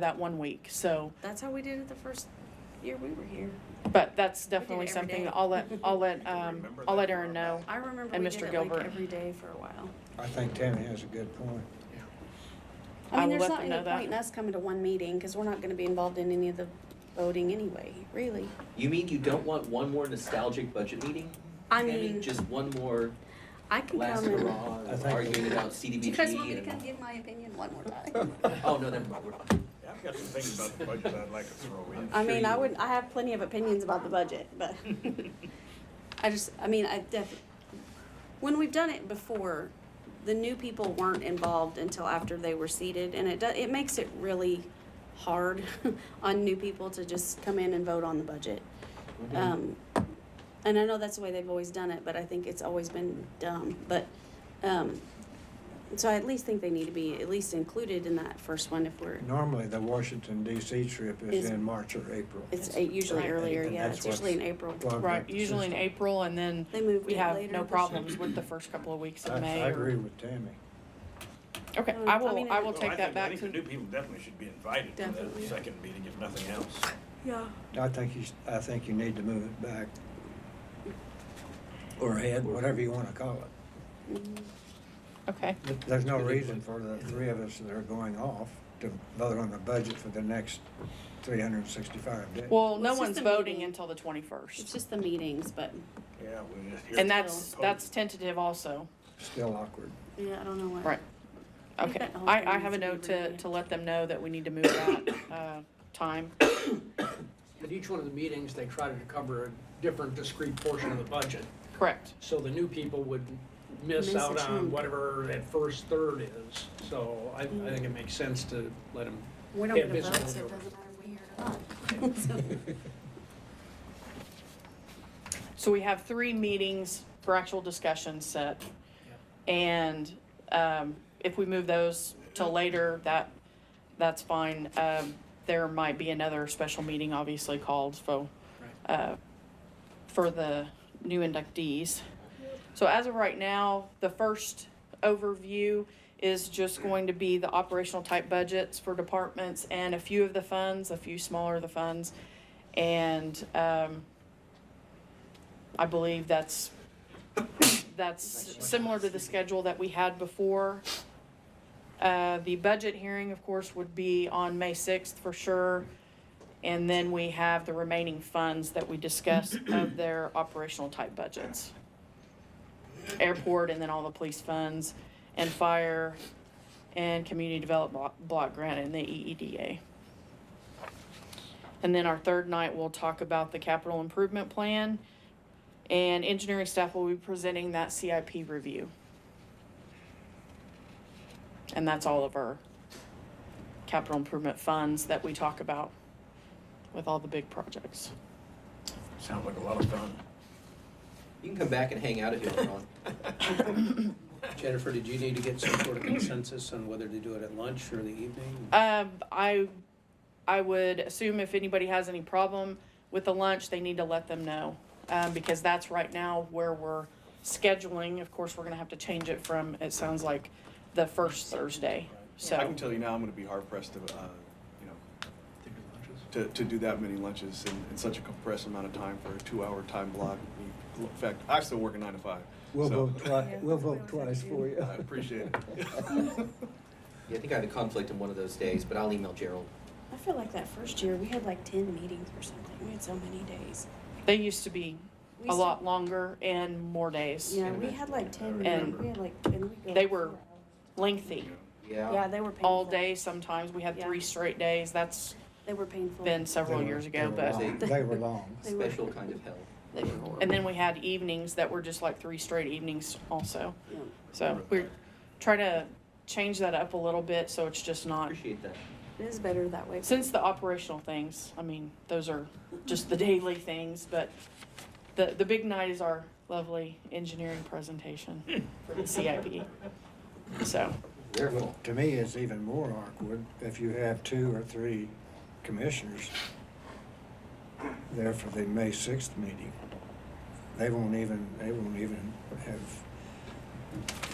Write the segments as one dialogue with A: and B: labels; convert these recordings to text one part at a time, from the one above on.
A: that one week, so,
B: That's how we did it the first year we were here.
A: but that's
B: did it
A: definitely
B: every
A: something
B: day.
A: that I'll let, I'll let, um,
C: Remember
A: I'll let
C: that for
A: Erin
C: our
A: know.
B: I remember
A: And
B: we
A: Mr.
B: did it
A: Gilbert.
B: like every day for a while.
D: I think Tammy has a good point.
A: I
E: I mean,
A: will let
E: there's not
A: them
E: any
A: know that.
E: point in us coming to one meeting, because we're not gonna be involved in any of the voting anyway, really.
F: You mean you don't want one more nostalgic budget meeting?
E: I
F: Tammy?
E: mean,
F: Just one more
E: I can
F: last
E: come and,
F: hurrah and
D: I think-
F: arguing about
E: do you guys want
F: CDBG
E: me to come
F: and,
E: give my opinion one more time?
F: oh, no, never mind, we're not.
C: Yeah, I've got some things about the budget I'd like to throw in.
E: I
F: Sure
E: mean, I
F: you-
E: would, I have plenty of opinions about the budget, but I just, I mean, I def, when we've done it before, the new people weren't involved until after they were seated, and it do, it makes it really hard on new people to just come in and vote on the budget.
D: Mm-hmm.
E: Um, and I know that's the way they've always done it, but I think it's always been dumb, but, um, so I at least think they need to be at least included in that first one if we're,
D: Normally, the Washington DC trip is
E: Is-
D: in March or April.
E: it's uh, usually
D: Right.
E: earlier,
D: And
E: yeah,
D: that's
E: it's usually in
D: what's-
E: April.
D: Well, I've
A: Right,
D: got the
A: usually in
D: system.
A: April, and then
E: They moved
A: we
E: it
A: have
E: later
A: no
E: this
A: problems with the first couple of weeks
D: I-
A: in May.
D: I
A: or-
D: agree with Tammy.
A: Okay,
E: Um,
A: I
E: I
A: will,
E: mean,
A: I
E: it-
A: will
C: Well, Oh, I
A: take that
C: think- I
A: back
C: think the
A: to,
C: new people definitely should be invited to
E: Definitely.
C: that second meeting, if nothing else.
E: Yeah.
D: I think you, s- I think you need to move it back. Or ahead, whatever you want to call it.
E: Mm,
A: okay,
D: There's no reason for the three of us that are going off to vote on the budget for the next 365 days.
A: well, no
E: it's just
A: one's
E: a
A: voting
E: meeting.
A: until the
E: It's
A: twenty-first,
E: just the meetings, but
C: Yeah, we just hear.
A: and that's,
C: Postpone.
A: that's tentative also,
D: Still awkward.
E: yeah, I don't know what.
A: right?
E: think
A: Okay,
E: that whole
A: I,
E: thing
A: I have a
E: needs to be
A: note to,
E: reviewed.
A: to let them know that we need to move that, uh, time,
G: At each one of the meetings, they try to cover a different discrete portion of the budget.
A: correct,
G: So the new people would miss
E: Miss a
G: out on
E: chunk. Mm.
G: whatever that first third is. So I, I think it makes sense to let them.
E: We don't
G: Yeah,
E: get a vote,
G: business
E: so it
G: over.
E: doesn't matter if we hear it or not. So,
A: so we have three meetings for actual discussion set. And, um, if we move those till later, that, that's fine, um, there might be another special meeting obviously called, so. uh, for the new inductees. So as of right now, the first overview is just going to be the operational type budgets for departments and a few of the funds, a few smaller of the funds. And um, I believe that's, that's similar to the schedule that we had before. Uh, The budget hearing, of course, would be on May 6th for sure. And then we have the remaining funds that we discussed of their operational type budgets. Airport and then all the police funds and fire and community development block, block grant and the E EEDA. And then our third night, we'll talk about the capital improvement plan and engineering staff will be presenting that CIP review. And that's all of our capital improvement funds that we talk about with all the big projects.
C: Sounds like a lot of fun.
F: You can come back and hang out if you want,
H: Jennifer, did you need to get some sort of consensus on whether to do it at lunch or the evening?
A: Um, I, I would assume if anybody has any problem with the lunch, they need to let them know. Um, because that's right now where we're scheduling. Of course, we're gonna have to change it from, it sounds like, the first Thursday.
I: I
A: So,
I: can tell you now, I'm gonna be hard pressed to, uh, you know, to, to do that many lunches in, in such a compressed amount of time for a two-hour time block. In fact, I still work a nine to five.
D: We'll
I: so
D: vote twice, we'll vote twice for you.
I: I appreciate it.
F: Yeah, I think I have a conflict in one of those days, but I'll email Gerald.
E: I feel like that first year, we had like ten meetings or something, we had so many days.
A: they used to be
E: We
A: a
E: used to-
A: lot longer and more days.
E: Yeah, we had like ten,
A: remember.
E: we had like, and we go
A: They
E: like
A: were-
E: four
A: Lengthy,
E: hours. Yeah, they were painful.
A: all day sometimes. We had
E: Yeah.
A: three straight days. That's
E: They were painful.
A: been several
D: They were-
A: years
D: they
A: ago,
D: were
A: but.
D: long. They were long.
E: They were-
F: Special kind of hell.
A: And then we had evenings that were just like three straight evenings also.
E: Yeah.
A: So we're trying to change that up a little bit so it's just not,
F: Appreciate that.
E: It is better that way.
A: since the operational things, I mean, those are just the daily things, but the, the big night is our lovely engineering presentation for the CIP. So,
F: Their
D: Well,
F: fault.
D: to me, it's even more awkward if you have two or three commissioners there for the May sixth meeting. They won't even, they won't even have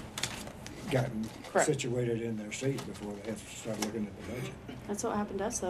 D: gotten
A: Correct.
D: situated in their seat before they have to start looking at the budget.
E: That's what happened to us, though.